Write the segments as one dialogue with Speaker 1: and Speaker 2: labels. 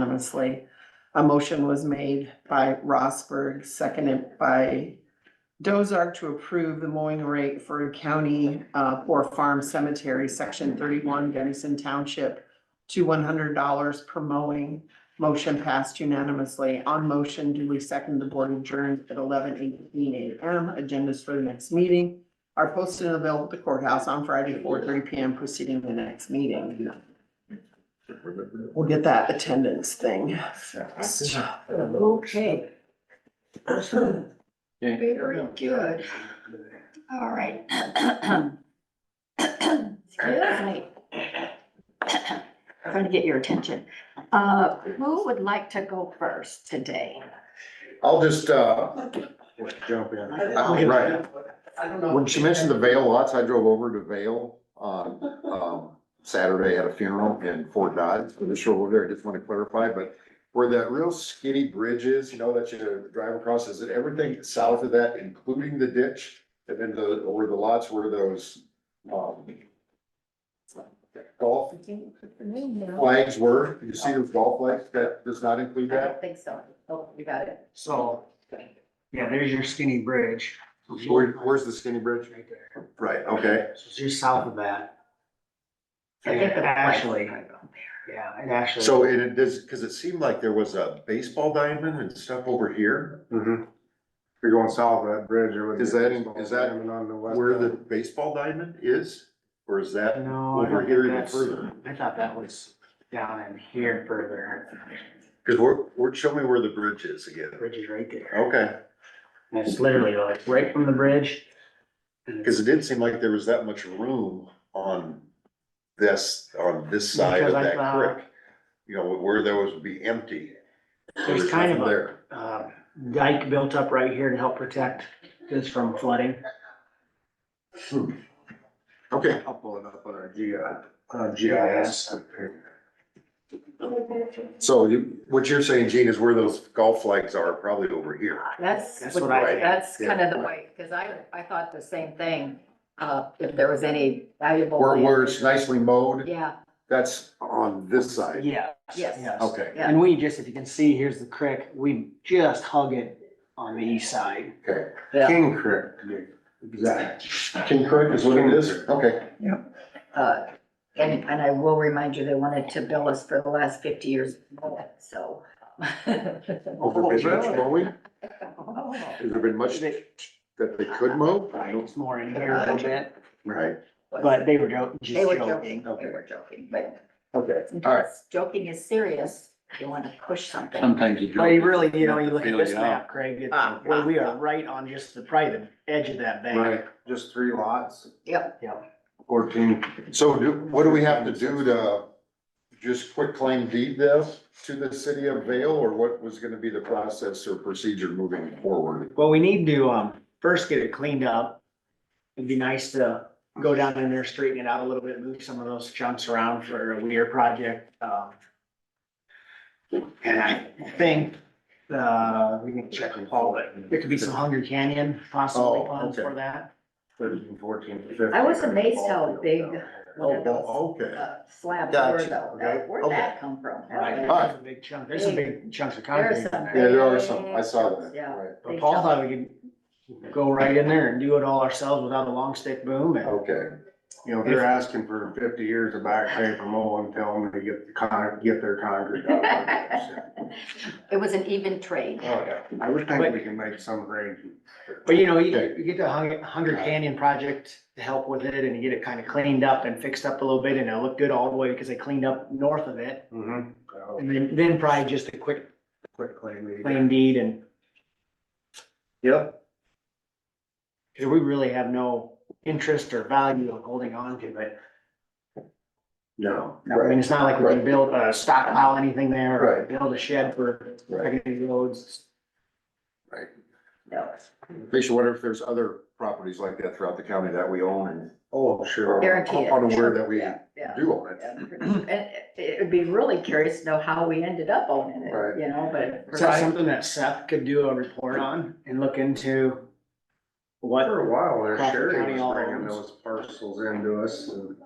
Speaker 1: unanimously. A motion was made by Rosberg, seconded by Dozark to approve the mowing rate for county, uh, for farm cemetery, section thirty-one, Dennison Township to one hundred dollars per mowing. Motion passed unanimously. On motion, duly second, the board adjourned at eleven eighteen AM. Agendas for the next meeting are posted and available at the courthouse on Friday, four thirty PM, preceding the next meeting. We'll get that attendance thing. fixed.
Speaker 2: Okay,
Speaker 3: Okay.
Speaker 2: very good. All right. Excuse me. Trying to get your attention. Uh, who would like to go first today?
Speaker 4: I'll just, uh, jump in. Right. When she mentioned the Vale lots, I drove over to Vale on, um, Saturday at a funeral in Fort Dodge. I'm just over there, I just want to clarify, but where that real skinny bridge is, you know, that you drive across, is it everything south of that, including the ditch? And then the, where the lots were those, um, golf flags were, you see those golf flags? That does not include that?
Speaker 2: think so. Oh, you got it.
Speaker 5: So, yeah, there's your skinny bridge.
Speaker 4: Where, where's the skinny bridge?
Speaker 5: Right there.
Speaker 4: Right, okay.
Speaker 5: So it's just south of that.
Speaker 2: I get the point.
Speaker 5: Ashley, yeah, and Ashley.
Speaker 4: So it it does, cause it seemed like there was a baseball diamond and stuff over here.
Speaker 6: You're going south of that bridge, there would be.
Speaker 4: Is that-
Speaker 6: a baseball
Speaker 4: is that
Speaker 6: diamond on the west
Speaker 4: Where the
Speaker 6: side.
Speaker 4: baseball diamond is, or is that
Speaker 5: No, Oh, I
Speaker 4: over
Speaker 5: don't
Speaker 4: here
Speaker 5: think
Speaker 4: even
Speaker 5: that's,
Speaker 4: further?
Speaker 5: I thought that was down in here further.
Speaker 4: Cause we're, we're, show me where the bridge is again.
Speaker 5: The Bridge is right there.
Speaker 4: Okay,
Speaker 5: And it's literally like right from the bridge. And it's-
Speaker 4: cause it didn't seem like there was that much room on this, on this side of
Speaker 5: Because I
Speaker 4: that
Speaker 5: thought-
Speaker 4: creek. You know, where there was, would be empty.
Speaker 5: There's kind of
Speaker 4: nothing
Speaker 5: a,
Speaker 4: There,
Speaker 5: uh, dike built up right here to help protect this from flooding.
Speaker 4: Hmm. okay.
Speaker 6: I'll pull it up on our G, uh, GIS.
Speaker 4: So you, what you're saying, Gene, is where those golf flags are, probably over here.
Speaker 2: That's,
Speaker 5: That's what I-
Speaker 2: that's
Speaker 4: yeah.
Speaker 2: kind of the way, because I, I thought the same thing. Uh, if there was any valuable.
Speaker 4: Where,
Speaker 2: land.
Speaker 4: where it's nicely mowed,
Speaker 2: Yeah,
Speaker 4: that's on this side.
Speaker 5: Yeah.
Speaker 2: Yes.
Speaker 4: Okay,
Speaker 2: Yeah.
Speaker 5: And we just, if you can see, here's the creek, we just hug it on the east side.
Speaker 4: okay.
Speaker 6: King Creek, exactly.
Speaker 4: King Creek is what it is? Okay.
Speaker 2: uh, and, and I will remind you, they wanted to bill us for the last fifty years, so.
Speaker 4: Over
Speaker 5: Oh,
Speaker 4: been much
Speaker 5: really?
Speaker 4: mowing? Has there been much that they could mow?
Speaker 5: Right, it's more in here a little bit,
Speaker 4: Right,
Speaker 5: but they were jo-
Speaker 2: They
Speaker 5: just
Speaker 2: were
Speaker 5: joking.
Speaker 2: joking, they were joking, but
Speaker 4: okay.
Speaker 2: sometimes joking is serious, you wanna push something.
Speaker 3: Sometimes you.
Speaker 5: But you
Speaker 3: don't
Speaker 5: really, you know, you look at
Speaker 3: feel
Speaker 5: this
Speaker 3: it out.
Speaker 5: map, Craig, it's,
Speaker 2: Uh,
Speaker 1: Ah,
Speaker 5: well, we are right on just the private edge of that bank.
Speaker 4: Right,
Speaker 6: Just three lots,
Speaker 2: Yep,
Speaker 6: fourteen.
Speaker 4: so do, what do we have to do to just quit claim deed this to the city of Vale, or what was gonna be the process or procedure moving forward?
Speaker 5: Well, we need to, um, first get it cleaned up. It'd be nice to go down in there, straighten it out a little bit, move some of those chunks around for a weir project, um. And I think, uh, we can check with Paul, but there could be some Hunger Canyon possibly
Speaker 4: Oh,
Speaker 5: funds
Speaker 4: okay.
Speaker 5: for that.
Speaker 6: Thirteen, fourteen, fifteen.
Speaker 2: I was amazed how big one
Speaker 4: Oh,
Speaker 2: of those
Speaker 4: well, okay,
Speaker 2: uh, slabs were
Speaker 4: Gotcha,
Speaker 2: though,
Speaker 4: okay,
Speaker 2: That- where'd
Speaker 4: okay.
Speaker 2: that come from?
Speaker 5: Right,
Speaker 4: Alright.
Speaker 5: there's a big chunk, there's some big chunks of concrete
Speaker 2: There's
Speaker 5: in
Speaker 2: some.
Speaker 5: there.
Speaker 4: Yeah, there are some. I saw that.
Speaker 2: Yeah.
Speaker 4: Right.
Speaker 5: But Paul thought we could go right in there and do it all ourselves without a long stick boom and.
Speaker 4: okay.
Speaker 6: You know, they're asking for fifty years of back pay from Owen, tell them to get the con, get their concrete out.
Speaker 2: It was an even trade.
Speaker 6: Oh, yeah, I would think we can make some arrangements.
Speaker 5: But you know, you, you get the Hunger, Hunger Canyon project to help with it and you get it kind of cleaned up and fixed up a little bit and it'll look good all the way because they cleaned up north of it.
Speaker 6: Mhm.
Speaker 5: And then, then probably just a quick
Speaker 6: Quick claim.
Speaker 5: claim deed and,
Speaker 6: Yep.
Speaker 5: cause we really have no interest or value of holding on to it.
Speaker 4: No.
Speaker 5: I mean,
Speaker 4: Right,
Speaker 5: it's not like we can build a stockpile, anything there, or
Speaker 4: Right.
Speaker 5: build a shed for
Speaker 4: right.
Speaker 5: secondary roads.
Speaker 2: No,
Speaker 4: Makes you wonder if there's other properties like that throughout the county that we own and
Speaker 6: Oh, sure.
Speaker 2: Guarantee it.
Speaker 4: unaware that we
Speaker 2: Yeah, yeah.
Speaker 4: do own it.
Speaker 2: And it- it'd be really curious to know how we ended up owning
Speaker 4: Right.
Speaker 2: it, you know, but.
Speaker 5: Is that something that Seth could do a report on and look into? What,
Speaker 6: For a while there,
Speaker 5: Crawford County
Speaker 6: Sherry was
Speaker 5: all
Speaker 6: bringing
Speaker 5: owns.
Speaker 6: those parcels into us and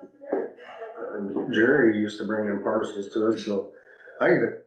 Speaker 6: and Jerry used to bring in parcels to us, so I,